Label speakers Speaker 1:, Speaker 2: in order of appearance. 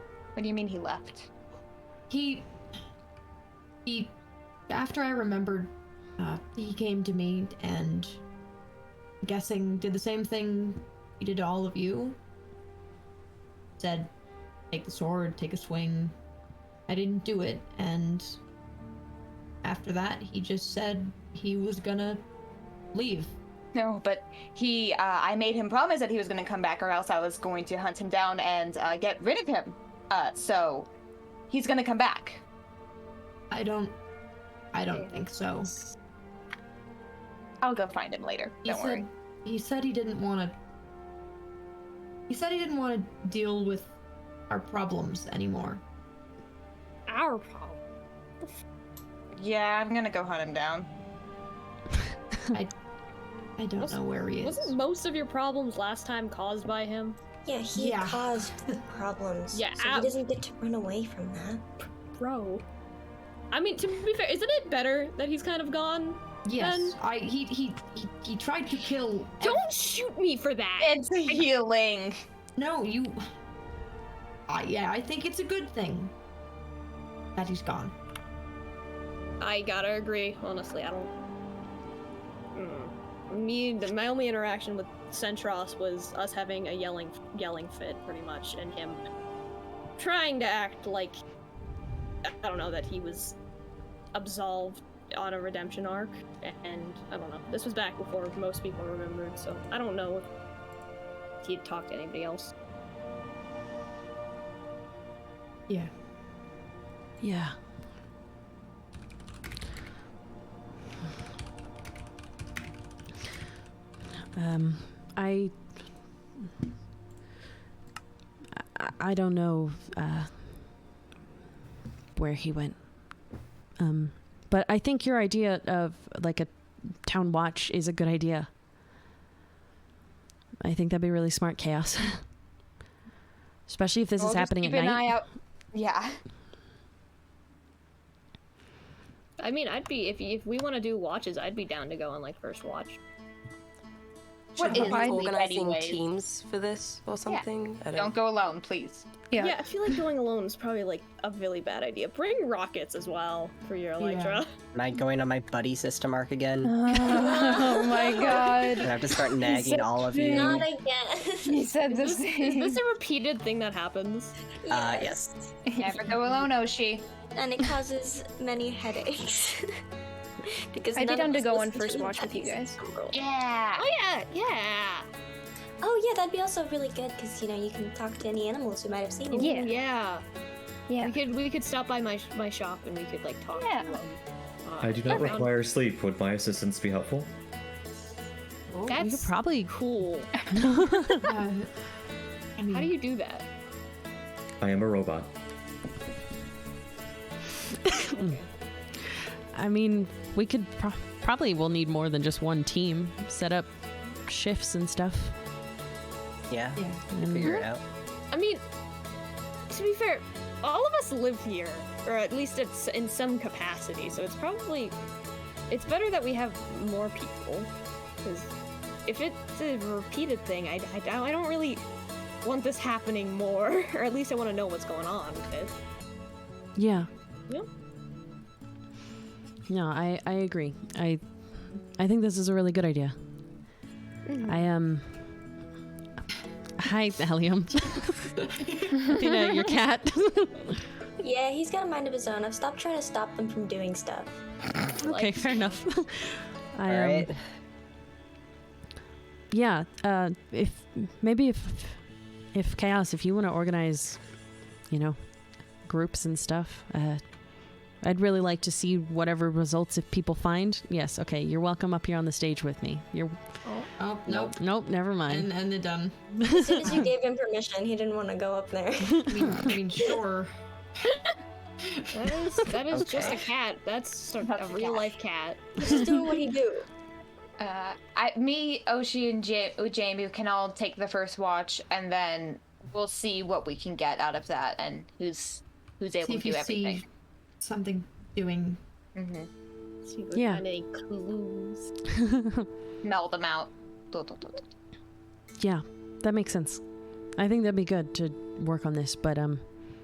Speaker 1: What do you mean he left?
Speaker 2: He. He. After I remembered, uh, he came to me and. I'm Guessing did the same thing he did to all of you. Said, take the sword, take a swing. I didn't do it, and. After that, he just said he was gonna leave.
Speaker 1: No, but he, uh, I made him promise that he was going to come back or else I was going to hunt him down and uh, get rid of him. Uh, so he's going to come back.
Speaker 2: I don't. I don't think so.
Speaker 1: I'll go find him later.
Speaker 2: He
Speaker 1: Don't
Speaker 2: said,
Speaker 1: worry.
Speaker 2: He said he didn't want to. He said he didn't want to deal with our problems anymore.
Speaker 3: Our problem.
Speaker 1: Yeah, I'm going to go hunt him down.
Speaker 2: I don't
Speaker 3: Was-
Speaker 2: know where he is.
Speaker 3: Wasn't most of your problems last time caused by him?
Speaker 4: Yeah, he
Speaker 2: Yeah.
Speaker 4: caused problems.
Speaker 3: Yeah,
Speaker 4: so
Speaker 3: ow.
Speaker 4: he doesn't get to run away from that.
Speaker 3: Bro. I mean, to be fair, isn't it better that he's kind of gone?
Speaker 2: Yes, I. He he he, he tried to kill. ev-
Speaker 3: Don't shoot me for that!
Speaker 1: It's healing.
Speaker 2: no, you. I yeah, I think it's a good thing that he's gone.
Speaker 3: I gotta agree. Honestly, I don't. Mm. Me, the- my only interaction with Centros was us having a yelling, yelling fit, pretty much, and him trying to act like I don't know that he was absolved on a redemption arc, and I don't know. This was back before most people remembered, so I don't know if he'd talked to anybody else.
Speaker 2: Yeah.
Speaker 5: Yeah. Um, I. I- I don't know uh, where he went. Um, but I think your idea of like a town watch is a good idea. I think that'd be really smart chaos. Especially if this
Speaker 1: We'll
Speaker 5: is
Speaker 1: just
Speaker 5: happening
Speaker 1: keep
Speaker 5: at
Speaker 1: an
Speaker 5: night.
Speaker 1: eye out. Yeah.
Speaker 3: I mean, I'd be if if we want to do watches, I'd be down to go on like first watch.
Speaker 1: What
Speaker 6: Should
Speaker 1: is
Speaker 6: we be
Speaker 1: Riley
Speaker 6: organizing
Speaker 1: anyways?
Speaker 6: teams for this or something? I
Speaker 1: Don't go alone, please.
Speaker 3: Yeah. I feel like going alone is probably like a really bad idea. Bring rockets as well for your Elytra.
Speaker 7: Am I going on my buddy system arc again?
Speaker 8: oh my
Speaker 7: I
Speaker 8: god.
Speaker 7: have to start nagging all of
Speaker 8: Mm.
Speaker 7: you.
Speaker 4: Not
Speaker 7: Uh,
Speaker 4: again.
Speaker 8: He said the
Speaker 3: Is, this, is
Speaker 8: same.
Speaker 3: this a repeated thing that happens?
Speaker 7: Uh, yes.
Speaker 1: Never go alone, Oshi.
Speaker 4: and it causes many headaches. because
Speaker 8: I did
Speaker 4: none of us
Speaker 8: undergo one
Speaker 4: listen to
Speaker 8: first
Speaker 4: you
Speaker 8: watch with you
Speaker 4: guys.
Speaker 8: guys.
Speaker 1: Yeah.
Speaker 3: Oh yeah, yeah,
Speaker 4: Oh yeah, that'd be also really good because you know you can talk to any animals who might have seen you.
Speaker 8: Yeah.
Speaker 3: yeah.
Speaker 8: Yeah.
Speaker 3: We could we could stop by my my shop and we could like talk.
Speaker 1: Yeah.
Speaker 3: To them. Uh,
Speaker 9: I do not
Speaker 3: around-
Speaker 9: require sleep. Would my assistance be helpful?
Speaker 5: You could
Speaker 3: That's
Speaker 5: probably
Speaker 3: cool.
Speaker 2: Uh, I mean,
Speaker 3: How do you do that?
Speaker 9: I am a robot.
Speaker 5: I mean, we could pro- probably we'll need more than just one team. Set up shifts and stuff.
Speaker 7: Yeah.
Speaker 2: Yeah.
Speaker 7: Figure
Speaker 8: Mm-hmm.
Speaker 7: it out.
Speaker 8: Um,
Speaker 3: I mean, to be fair, all of us live here, or at least it's in some capacity. So it's probably it's better that we have more people, because if it's a repeated thing, I, I, don't- I don't really want this happening more, or at least I want to know what's going on with it.
Speaker 5: Yeah.
Speaker 3: Yep.
Speaker 5: No, I I agree. I I think this is a really good idea. I am. Hi, Helium. Athena, your cat.
Speaker 4: Yeah, he's got a mind of his own. I've stopped trying to stop them from doing stuff.
Speaker 5: okay, fair enough. I
Speaker 7: All
Speaker 5: um,
Speaker 7: right.
Speaker 5: yeah uh if maybe if if chaos if you want to organize you know groups and stuff uh i'd really like to see whatever results if people find yes okay you're welcome up here on the stage with me you're
Speaker 2: Oh nope.
Speaker 5: nope never
Speaker 2: And
Speaker 5: mind
Speaker 2: and they're done.
Speaker 4: As soon as you gave him permission, he didn't want to go up there.
Speaker 2: I mean, I mean sure.
Speaker 3: That is that is just a cat. That's a,
Speaker 1: That's a
Speaker 3: real
Speaker 1: cat.
Speaker 3: life cat.
Speaker 4: He's just doing what he do.
Speaker 1: Uh, I, me, Oshi, and ja- uh, Jamie can all take the first watch, and then we'll see what we can get out of that, and who's who's able
Speaker 2: See
Speaker 1: to
Speaker 2: if you
Speaker 1: do everything.
Speaker 2: see something doing.
Speaker 1: Mm-hmm.
Speaker 3: See if we
Speaker 5: Yeah.
Speaker 3: find any clues.
Speaker 1: Meld them out. Do, do, do, do.
Speaker 5: yeah that makes sense i think that'd be good to work on this but um